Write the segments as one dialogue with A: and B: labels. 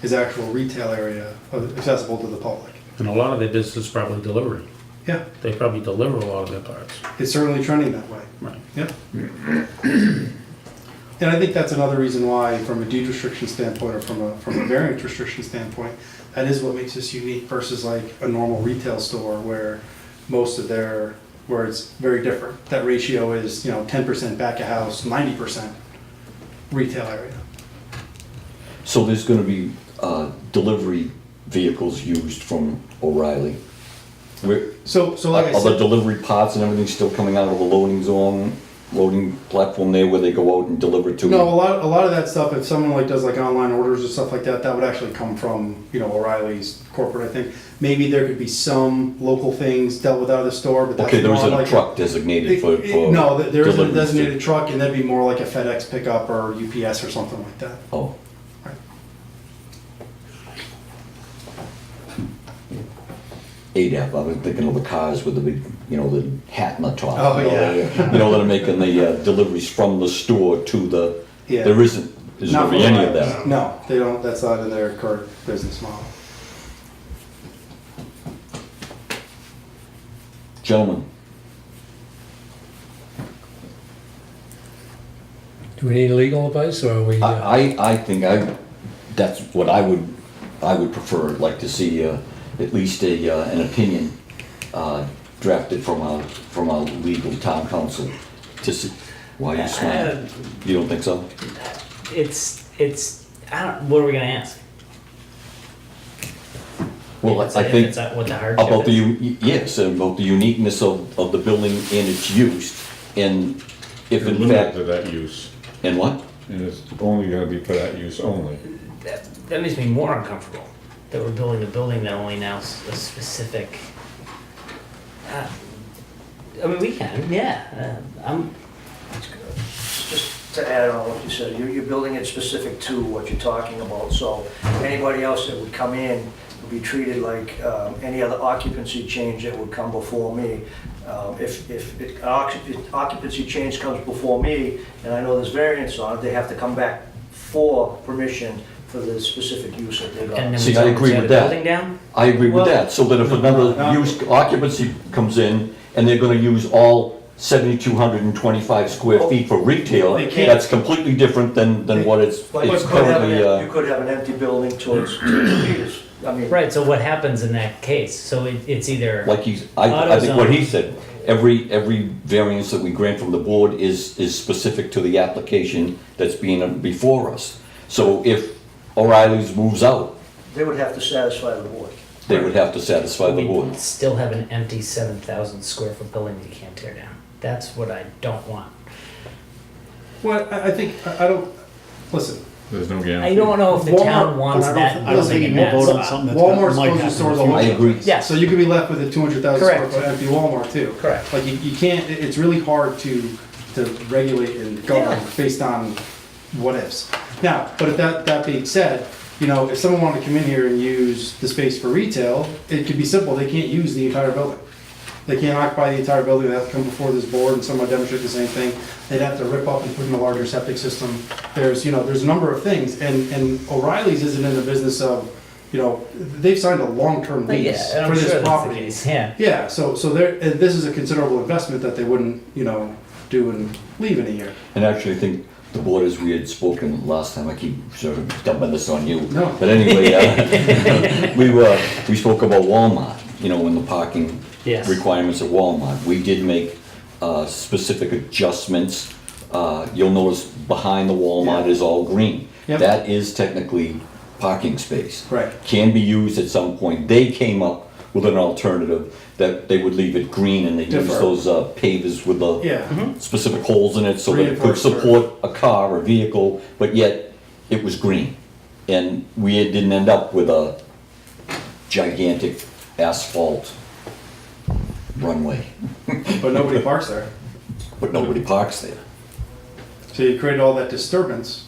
A: his actual retail area accessible to the public.
B: And a lot of their business is probably delivery.
A: Yeah,
B: They probably deliver a lot of their parts.
A: it's certainly trending that way.
B: Right.
A: Yeah. And I think that's another reason why, from a deed restriction standpoint or from a, from a variance restriction standpoint, that is what makes this unique versus like a normal retail store where most of their, where it's very different. That ratio is, you know, ten percent back of house, ninety percent retail area.
C: So there's gonna be, uh, delivery vehicles used from O'Reilly? Where,
A: So, so like I
C: are
A: said.
C: the delivery pods and everything still coming out of the loading zone, loading platform there where they go out and deliver to?
A: No, a lot, a lot of that stuff. If someone like does like online orders or stuff like that, that would actually come from you know O'Reilly's corporate. I think maybe there could be some local things dealt with out of the store, but that's
C: Okay, there
A: more
C: isn't a
A: like
C: truck designated
A: It-
C: for,
A: it-
C: for.
A: no, th- there isn't a
C: deliveries to-
A: designated truck, and that'd be more like a FedEx pickup or UPS or something like that.
C: Oh,
A: Right.
C: ADAP, I was thinking of the cars with the big, you know, the hat and the top.
A: Oh,
C: you know,
A: yeah.
C: that- You know, that are making the uh, deliveries from the store to the,
A: Yeah.
C: there isn't, there's
A: Not
C: gonna be
A: for
C: any of
A: O'Reilly's.
C: that.
A: No, they don't. That's not in their current business model.
C: Gentlemen,
D: Do we need legal advice or are we? uh,
C: I, I, I think I, that's what I would, I would prefer, like to see, uh, at least a, uh, an opinion, uh, drafted from our, from our legal town council to see, why you smiling? You don't think so?
E: It's it's. I don't. What are we gonna ask?
C: Well, I
E: If it's-
C: I
E: if
C: think
E: it's that- what the hardship
C: about the,
E: is.
C: u- yes, and about the uniqueness of, of the building and its use, and if
F: It's
C: in
F: limited
C: fact,
F: to that use,
C: and what?
F: and it's only gonna be for that use only.
E: That, that makes me more uncomfortable. That we're building a building that only now s- a specific. Uh, I mean, we can. Yeah. Uh, I'm.
G: Just to add on what you said, you're, you're building it specific to what you're talking about, so anybody else that would come in would be treated like um, any other occupancy change that would come before me. Um, If, if it- occ- if occupancy change comes before me, and I know there's variance on it, they have to come back for permission for the specific use that they're
E: And
G: going.
E: then
C: See,
E: we
C: I
E: tell them,
C: agree
E: tear
C: with
E: the
C: that.
E: Building down.
C: I agree with
A: Well-
C: that, so that if
A: No,
C: another
A: no.
C: use occupancy comes in, and they're gonna use all seventy-two hundred and twenty-five square
G: Oh,
C: feet for retail,
A: they can't.
C: that's completely different than, than what it's,
G: But you
C: it's
G: could have an
C: currently,
G: em- You
C: uh,
G: could have an empty building towards, towards, I mean.
E: Right. So what happens in that case? So it, it's either.
C: like he's, I, I think what
E: AutoZone.
C: he said, every, every variance that we grant from the board is, is specific to the application that's being before us. So if O'Reilly's moves out,
G: They would have to satisfy the board.
C: they would have to satisfy the board.
E: we still have an empty seven thousand square foot building that you can't tear down. That's what I don't want.
A: Well, I, I think I, I don't listen.
F: There's no guarantee.
E: I don't know if the town
A: Walmart-
E: wants
A: I don't
E: that
A: think-
E: building. in that
A: will
E: spot.
H: that's gonna-
A: Walmart's
H: might
A: closing
H: happen
A: its doors
H: in the
A: a whole
C: I
A: bunch.
C: agree.
E: Yes.
A: So you could be left with a two hundred thousand square
E: Correct.
A: foot empty Walmart too.
E: Correct.
A: Like you, you can't, it- it's really hard to, to regulate and govern based on what ifs. Now, but if that, that being said, you know, if someone wanted to come in here and use the space for retail, it could be simple, they can't use the entire building. They can't occupy the entire building, they have to come before this board and someone demonstrate the same thing. They'd have to rip up and put in a larger septic system. There's, you know, there's a number of things, and, and O'Reilly's isn't in the business of, you know, they've signed a long-term
E: But yeah,
A: lease
E: and I'm
A: for
E: sure
A: this
E: that's the
A: property.
E: case. Yeah.
A: Yeah, so, so there, and this is a considerable investment that they wouldn't, you know, do and leave in a year.
C: And actually, I think the board, as we had spoken last time, I keep sort of dumping this on you.
A: No.
C: But anyway, uh, we were, we spoke about Walmart, you know, and the parking
E: Yes.
C: requirements at Walmart. We did make uh, specific adjustments. Uh, You'll notice behind the Walmart
A: Yeah.
C: is all green.
A: Yep.
C: That is technically parking space.
A: Right.
C: Can be used at some point. They came up with an alternative that they would leave it green and they use
A: Different.
C: those uh, pavers with the
E: Mm-hmm.
A: Yeah,
C: specific holes in it so that it could
A: Hmm? Reinforced or-
C: support a car or vehicle, but yet it was green. And we didn't end up with a gigantic asphalt runway,
A: but nobody parks there.
C: but nobody parks there.
A: So you created all that disturbance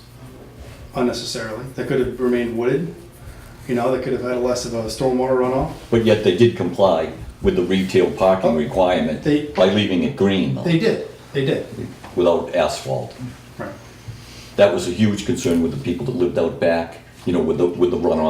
A: unnecessarily. That could have remained wooded, you know, that could have had less of a stormwater runoff.
C: But yet they did comply with the retail parking requirement
A: Oh, They-
C: by leaving it green though,
A: They did, they did.
C: without asphalt.
A: Right.
C: That was a huge concern with the people that lived out back you know, with the, with the runoff